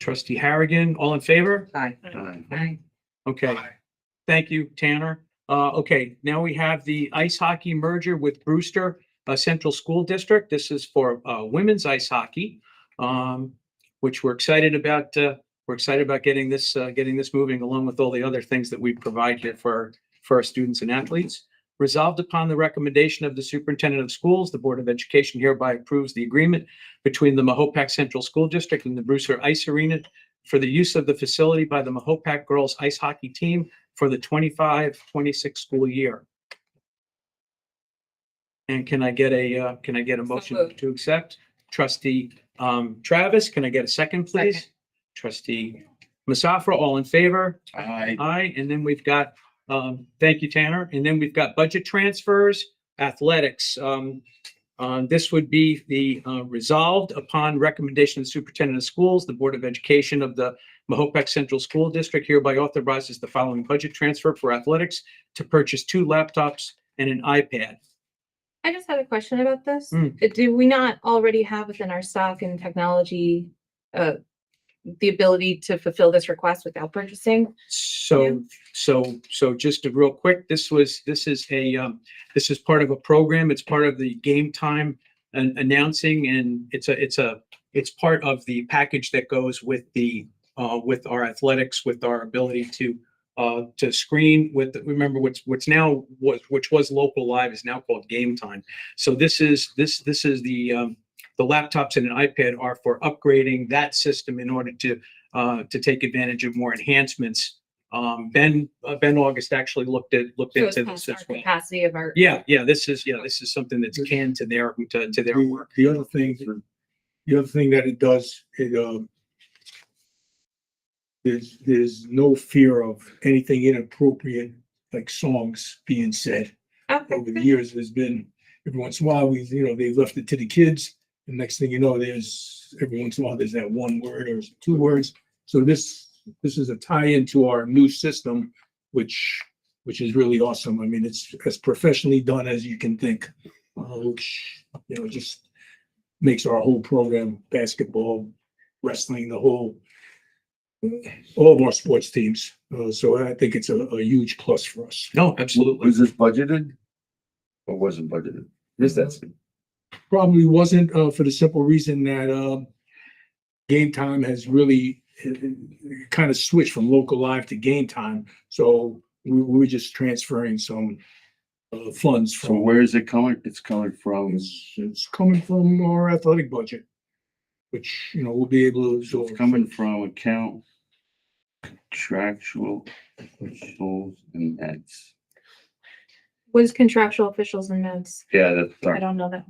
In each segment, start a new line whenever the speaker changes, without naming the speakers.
Trustee Harrigan, all in favor?
Aye.
Mm-hmm.
Aye.
Aye.
Okay, thank you, Tanner. Uh, okay, now we have the ice hockey merger with Brewster uh, Central School District. This is for uh, women's ice hockey, um, which we're excited about. Uh, we're excited about getting this, uh, getting this moving along with all the other things that we provide here for, for our students and athletes. Resolved upon the recommendation of the superintendent of schools, the Board of Education hereby approves the agreement between the Mahopac Central School District and the Brewster Ice Arena for the use of the facility by the Mahopac girls ice hockey team for the 25-26 school year. And can I get a, uh, can I get a motion
moved.
to accept? Trustee, um, Travis, can I get a second, please?
Second.
Trustee Masafra, all in favor?
Aye.
Aye, and then we've got, um, thank you, Tanner. And then we've got budget transfers, athletics. Um, uh, this would be the, uh, resolved upon recommendation of the superintendent of schools, the Board of Education of the Mahopac Central School District hereby authorizes the following budget transfer for athletics to purchase two laptops and an iPad.
I just had a question about this.
Mm.
Uh, Do we not already have within our stock and technology, uh, the ability to fulfill this request without purchasing? Yeah.
So, so, so just a real quick, this was, this is a, um, this is part of a program. It's part of the game time and announcing and it's a, it's a, it's part of the package that goes with the, uh, with our athletics, with our ability to, uh, to screen with, remember what's, what's now, was, which was local live is now called game time. So this is, this, this is the, um, the laptops and an iPad are for upgrading that system in order to, uh, to take advantage of more enhancements um, Ben, uh, Ben August actually looked at, looked
So it's
into this
past our
as well.
capacity of our.
Yeah, yeah, this is, yeah, this is something that's can to their, to, to their
The-
work.
The other thing, the other thing that it does, it, um, there's, there's no fear of anything inappropriate, like songs being said.
Okay,
Over the
good.
years, there's been, every once in a while, we, you know, they left it to the kids. And next thing you know, there's, every once in a while, there's that one word or two words. So this, this is a tie-in to our new system, which, which is really awesome. I mean, it's as professionally done as you can think. uh, which, you know, just makes our whole program, basketball, wrestling, the whole, all of our sports teams. Uh, so I think it's a, a huge plus for us.
No, absolutely.
Was this budgeted? Or wasn't budgeted? Is that?
probably wasn't, uh, for the simple reason that, um, game time has really eh, kind of switched from local live to game time. So we, we were just transferring some, uh, funds
So
from,
where is it coming? It's coming from,
it's, it's coming from our athletic budget, which, you know, we'll be able to
so it's
absorb.
coming from account contractual officials and that's.
Was contractual officials and notes.
Yeah, that's,
I
sorry.
don't know that.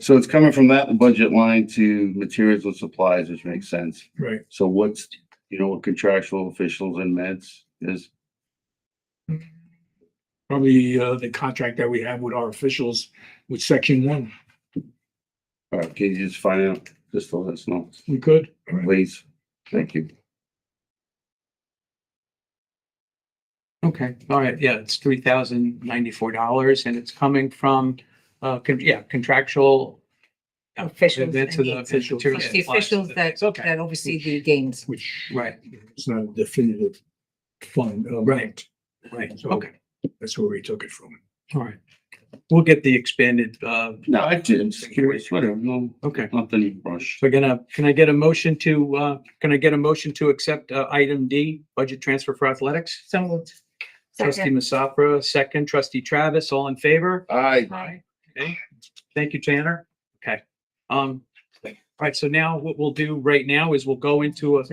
so it's coming from that budget line to materials and supplies, which makes sense.
Right.
So what's, you know, what contractual officials and meds is?
Probably, uh, the contract that we have with our officials with section one,
All right, uh, can you just find out, just let us know,
we could.
please? Thank you.
Okay, all right, yeah, it's three thousand ninety-four dollars and it's coming from, uh, con- yeah, contractual.
Officials.
That's
and
the
games.
official material
It's The
supplies.
officials that,
Okay.
that oversee the games.
Which
Right,
is not a definitive fund, uh, right?
right,
So-
okay,
That's where we took it from.
all right. We'll get the expanded, uh,
No, I didn't, just curious, whatever, no,
okay.
nothing rushed.
So gonna, can I get a motion to, uh, can I get a motion to accept, uh, item D, budget transfer for athletics?
So moved.
Trustee
Second.
Masafra, second. Trustee Travis, all in favor?
Aye.
Aye.
Okay, thank you, Tanner. Okay, um, all right, so now what we'll do right now is we'll go into a,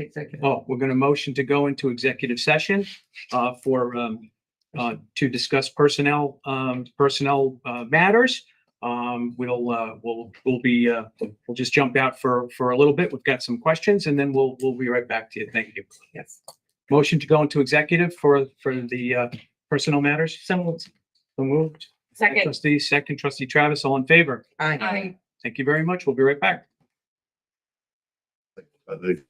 oh, we're gonna motion to go into executive session uh, for, um, uh, to discuss personnel, um, personnel, uh, matters. Um, we'll, uh, we'll, we'll be, uh, we'll just jump out for, for a little bit. We've got some questions and then we'll, we'll be right back to you. Thank you.
Yes.
Motion to go into executive for, for the, uh, personnel matters.
So moved.
So moved.
Second.
Trustee, second trustee Travis, all in favor?
Aye.
Aye.
Thank you very much. We'll be right back.
I think